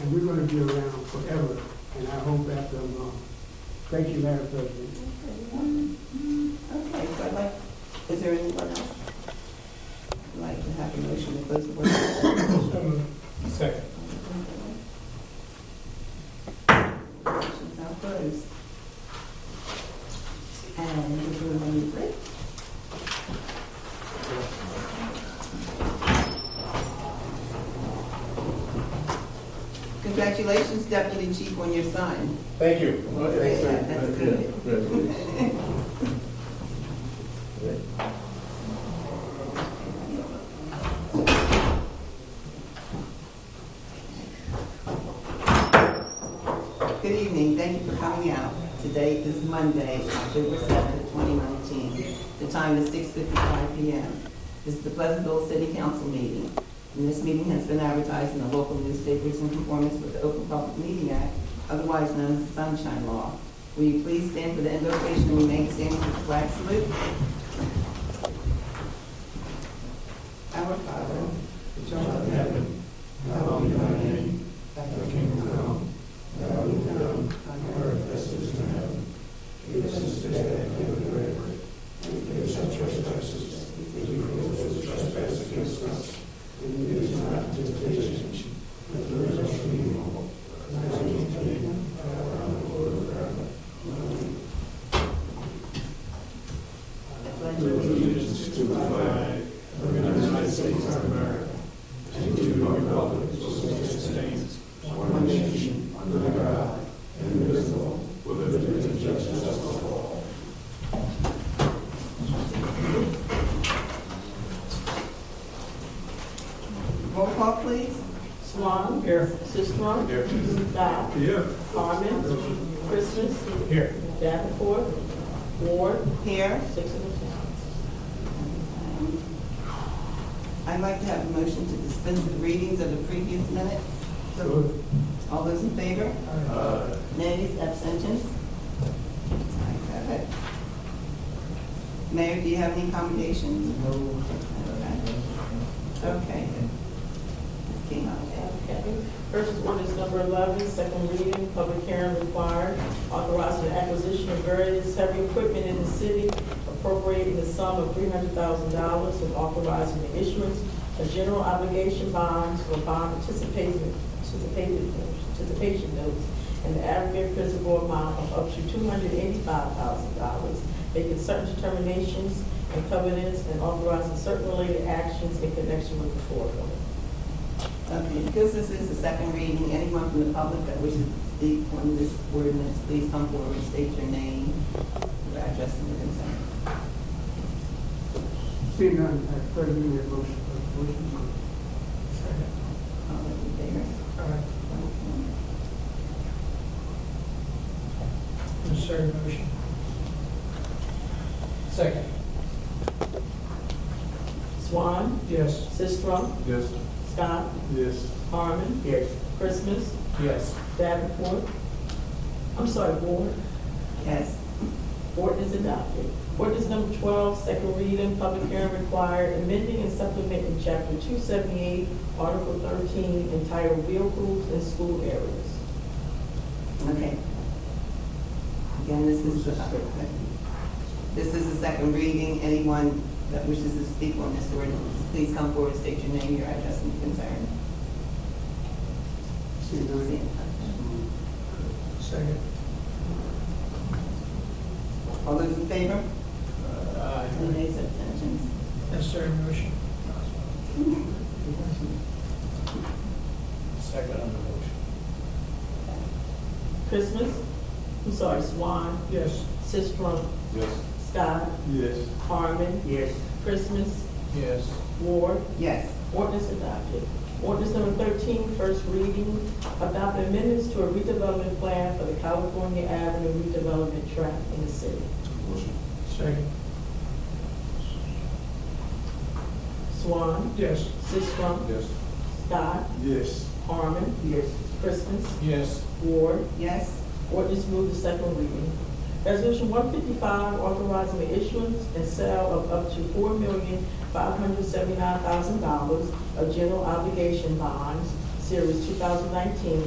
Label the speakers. Speaker 1: and we're gonna be around forever, and I hope after I'm gone. Thank you, Madam President.
Speaker 2: Okay, so I'd like, is there anyone else? I'd like to have a motion to close the work session.
Speaker 3: Second.
Speaker 2: Motion's now closed. And we're going to need a break. Congratulations, Deputy Chief, on your sign.
Speaker 3: Thank you.
Speaker 2: Thanks, sir. That's good. Good evening, thank you for coming out. Today is Monday, October 7th, 2019. The time is 6:55 PM. This is the Pleasantville City Council meeting. And this meeting has been advertised in the local newspapers in conformance with the Open Public Meeting Act, otherwise known as the Sunshine Law. Will you please stand for the invocation and remain standing for the flag salute? Our Father, which art in heaven, roll call please.
Speaker 4: Swan. Here. Sisdrum. Here. Dow.
Speaker 3: Yeah.
Speaker 4: Harmon. Christmas.
Speaker 3: Here.
Speaker 4: Davenport. Ward.
Speaker 2: Here,
Speaker 4: Six of us.
Speaker 2: I'd like to have a motion to dispense with readings of the previous minutes. All those in favor? Nays, abstentions? Ayes have it. Mayor, do you have any commendations? No. Okay. Ms. King, okay.
Speaker 4: Okay. First is ordinance number 11, second reading, public hearing required, authorizing the acquisition of various heavy equipment in the city, appropriating the sum of $300,000 and authorizing the issuance of general obligation bonds for bond participation, participating- participation notes in the aggregate principal amount of up to $285,000, making certain determinations and covenants, and authorizing certain related actions in connection with the foregoing.
Speaker 2: Okay, because this is the second reading, anyone from the public that wishes to speak on this ordinance, please come forward, state your name, your address, and your concern.
Speaker 1: Seeing none, I further move that motion. uh, motion.
Speaker 2: All those in favor?
Speaker 5: Insert motion. Second.
Speaker 4: Swan,
Speaker 5: Yes.
Speaker 4: Sistrum,
Speaker 3: Yes.
Speaker 4: Scott,
Speaker 3: Yes.
Speaker 4: Harmon,
Speaker 1: Yes.
Speaker 4: Christmas,
Speaker 5: Yes.
Speaker 4: Davenport. I'm sorry, Ward.
Speaker 2: Yes.
Speaker 4: Ward is adopted. Ordinance number 12, second reading, public hearing required, amending and supplementing Chapter 278, Article 13, entitled Vehicles in School Areas.
Speaker 2: Okay. Again, this is the, this is the second reading. Anyone that wishes to speak on this ordinance, please come forward, state your name, your address, and your concern.
Speaker 1: Seeing none,
Speaker 5: Second.
Speaker 2: All those in favor?
Speaker 5: Aye.
Speaker 2: Any nays, abstentions?
Speaker 5: Insert motion. Second on the motion.
Speaker 4: Christmas, I'm sorry, Swan,
Speaker 5: Yes.
Speaker 4: Sistrum,
Speaker 3: Yes.
Speaker 4: Scott,
Speaker 3: Yes.
Speaker 4: Harmon,
Speaker 1: Yes.
Speaker 4: Christmas,
Speaker 5: Yes.
Speaker 4: Ward,
Speaker 2: Yes.
Speaker 4: Ordinance adopted. Ordinance number 13, first reading, adopt amendments to a redevelopment plan for the California Avenue redevelopment tract in the city.
Speaker 3: Motion.
Speaker 5: Second.
Speaker 4: Swan,
Speaker 5: Yes.
Speaker 4: Sisram,
Speaker 3: Yes.
Speaker 4: Scott,
Speaker 3: Yes.
Speaker 4: Harmon,
Speaker 1: yes.
Speaker 4: Christmas,
Speaker 5: Yes.
Speaker 4: Ward.
Speaker 2: Yes?
Speaker 4: Ordinance move to second reading. Resolution 155, authorizing the issuance and sale of up to $4,579,000 of general obligation bonds, Series 2019,